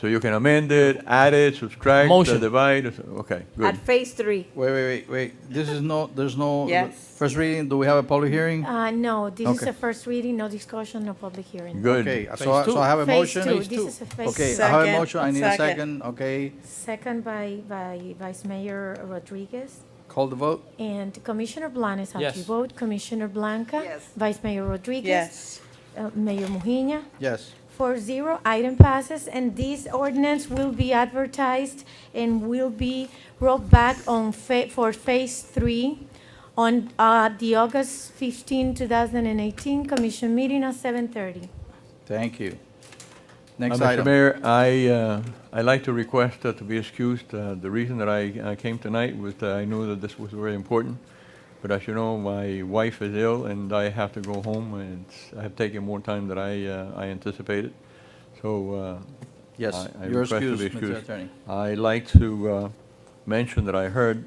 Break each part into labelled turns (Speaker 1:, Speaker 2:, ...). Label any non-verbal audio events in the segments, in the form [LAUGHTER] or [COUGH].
Speaker 1: So you can amend it, add it, subtract,
Speaker 2: Motion.
Speaker 1: divide, okay,
Speaker 3: At
Speaker 1: good.
Speaker 3: phase three.
Speaker 4: Wait, wait, wait, wait. This is no, there's no.
Speaker 5: Yes.
Speaker 4: First reading, do we have a public hearing?
Speaker 6: Uh, no, this is
Speaker 4: Okay.
Speaker 6: a first reading, no discussion, no public hearing.
Speaker 4: Okay,
Speaker 1: Good.
Speaker 4: so I,
Speaker 2: Phase
Speaker 4: so I have a
Speaker 6: Phase
Speaker 4: motion.
Speaker 6: two, this is a phase
Speaker 4: Okay, uh-huh. I
Speaker 6: two.
Speaker 4: have a
Speaker 5: Second,
Speaker 4: motion, I need a
Speaker 5: second.
Speaker 4: second, okay.
Speaker 6: Second by, by Vice Mayor Rodriguez.
Speaker 4: Call the vote?
Speaker 6: And Commissioner Blanes, how do you
Speaker 2: Yes.
Speaker 6: vote? Commissioner Blanca?
Speaker 5: Yes.
Speaker 6: Vice Mayor Rodriguez?
Speaker 5: Yes.
Speaker 6: Uh, Mayor Mujina?
Speaker 4: Yes.
Speaker 6: Four zero, item passes, and this ordinance will be advertised and will be rolled back on fa, for phase three on, uh, the August 15, 2018 commission meeting at seven thirty.
Speaker 4: Thank you.
Speaker 1: Uh,
Speaker 4: Next
Speaker 1: Mr.
Speaker 4: item.
Speaker 1: Mayor, I, uh, I'd like to request uh, to be excused. Uh, The reason that I I came tonight was that I knew that this was very important. But as you know, my wife is ill and I have to go home and it's- I have taken more time than I uh, I anticipated. So. uh,
Speaker 4: Yes,
Speaker 1: I- I
Speaker 4: you're
Speaker 1: request to be
Speaker 4: excused, Mr.
Speaker 1: excused.
Speaker 4: Attorney.
Speaker 1: I'd like to uh, mention that I heard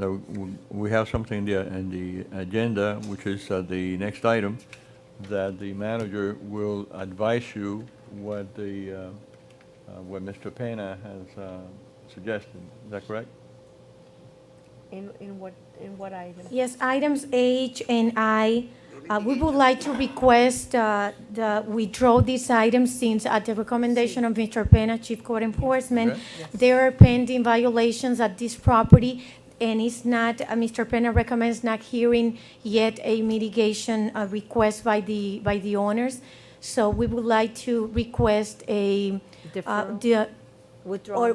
Speaker 1: that w- we have something in the- in the agenda, which is uh, the next item, that the manager will advise you what the, uh, uh, what Mr. Pena has uh, suggested. Is that correct?
Speaker 5: In, in what, in what item?
Speaker 6: Yes, items H and I, uh, we would like to request, uh, the, withdraw these items since at the recommendation of Mr. Pena, Chief Code Enforcement,
Speaker 1: Okay.
Speaker 6: there are pending violations at this property, and it's not, uh, Mr. Pena recommends not hearing yet a mitigation, uh, request by the, by the owners. So we would like to request a, uh,
Speaker 3: Deferral?
Speaker 6: the, or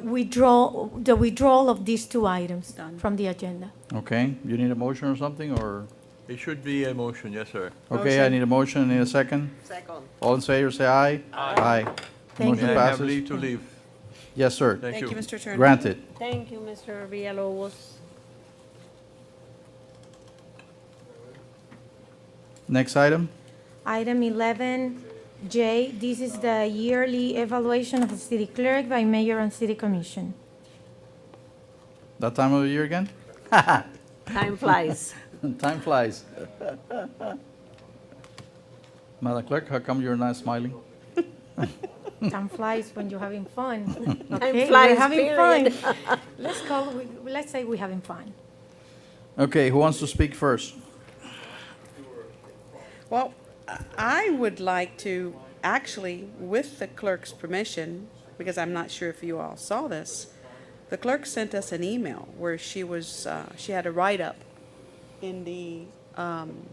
Speaker 3: Withdraw.
Speaker 6: withdraw, the withdrawal of these two items
Speaker 5: Done.
Speaker 6: from the agenda.
Speaker 4: Okay, you need a motion or something, or?
Speaker 1: It should be a motion, yes, sir.
Speaker 4: Okay, I need a motion, I need a second.
Speaker 5: Second.
Speaker 4: All in favor, say aye. Aye.
Speaker 6: Thank
Speaker 4: Motion
Speaker 6: you.
Speaker 1: May I have
Speaker 4: passes.
Speaker 1: leave to leave?
Speaker 4: Yes, sir.
Speaker 5: Thank you, Mr. Attorney.
Speaker 4: Granted.
Speaker 3: Thank you, Mr. Villalobos.
Speaker 4: Next item?
Speaker 6: Item 11J, this is the yearly evaluation of the city clerk by mayor and city commission.
Speaker 4: That time of the year again?
Speaker 3: Time flies.
Speaker 4: Time flies. [LAUGHS] Madam Clerk, how come you're not smiling?
Speaker 5: Hmm.
Speaker 6: Time flies when you're having fun.
Speaker 5: [LAUGHS]
Speaker 3: Time
Speaker 6: Okay,
Speaker 3: flies,
Speaker 6: We're having
Speaker 3: period.
Speaker 6: fun. [LAUGHS] Let's call, we- let's say we're having fun.
Speaker 4: Okay, who wants to speak first?
Speaker 5: Well, I would like to, actually, with the clerk's permission, because I'm not sure if you all saw this, the clerk sent us an email where she was, uh, she had a write-up in the, um,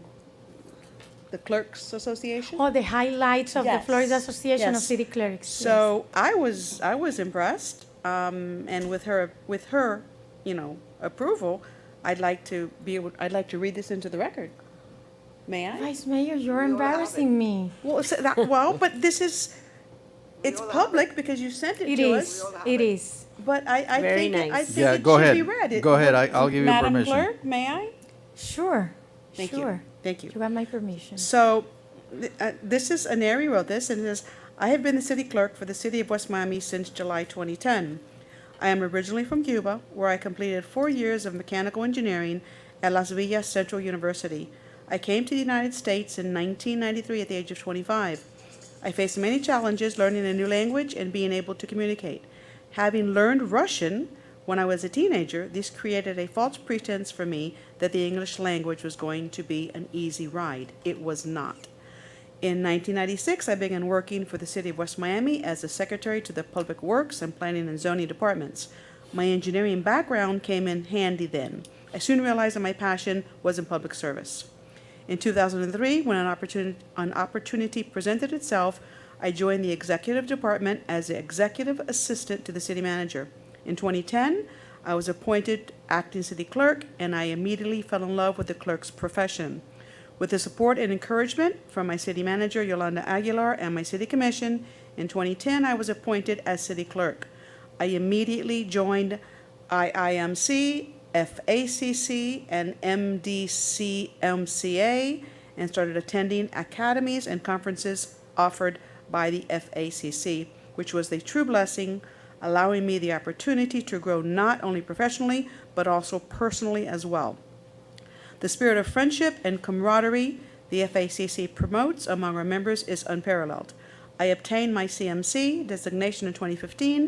Speaker 5: the Clerks Association.
Speaker 6: Oh, the highlights of the
Speaker 5: Yes,
Speaker 6: Florida Association of
Speaker 5: yes.
Speaker 6: City Clerks. yes.
Speaker 5: So I was I was impressed, um, and with her with her, you know, approval, I'd like to be able I'd like to read this into the record. May I?
Speaker 6: Vice Mayor, you're embarrassing me.
Speaker 5: Well, so that, well, but this is it's public because you sent it,
Speaker 6: It
Speaker 5: to
Speaker 6: is,
Speaker 5: us.
Speaker 6: it is.
Speaker 5: But I, I
Speaker 3: Very
Speaker 5: think it, I
Speaker 3: nice.
Speaker 5: think
Speaker 4: Yeah,
Speaker 5: it
Speaker 4: go
Speaker 5: should
Speaker 4: ahead.
Speaker 5: be read. It-
Speaker 4: Go ahead, I- I'll give you
Speaker 5: Madam
Speaker 4: permission.
Speaker 5: Clerk, may I?
Speaker 6: Sure,
Speaker 5: Thank
Speaker 6: sure.
Speaker 5: you. Thank you.
Speaker 6: You got my permission.
Speaker 5: So, th- uh, this is, Aneri wrote this, and it says, "I have been the city clerk for the city of West Miami since July 2010. I am originally from Cuba, where I completed four years of mechanical engineering at Las Villas Central University. I came to the United States in 1993 at the age of 25. I faced many challenges learning a new language and being able to communicate. Having learned Russian when I was a teenager, this created a false pretense for me that the English language was going to be an easy ride. It was not. In 1996, I began working for the City of West Miami as a secretary to the Public Works and Planning and Zoning Departments. My engineering background came in handy then. I soon realized that my passion was in public service. In 2003, when an opportunity, an opportunity presented itself, I joined the executive department as the executive assistant to the city manager. In 2010, I was appointed acting city clerk, and I immediately fell in love with the clerk's profession. With the support and encouragement from my city manager, Yolanda Aguilar, and my city commission, in 2010, I was appointed as city clerk. I immediately joined IIMC, FACC, and MDCMCA and started attending academies and conferences offered by the FACC, which was a true blessing, allowing me the opportunity to grow not only professionally but also personally as well. The spirit of friendship and camaraderie the FACC promotes among our members is unparalleled. I obtained my CMC designation in 2015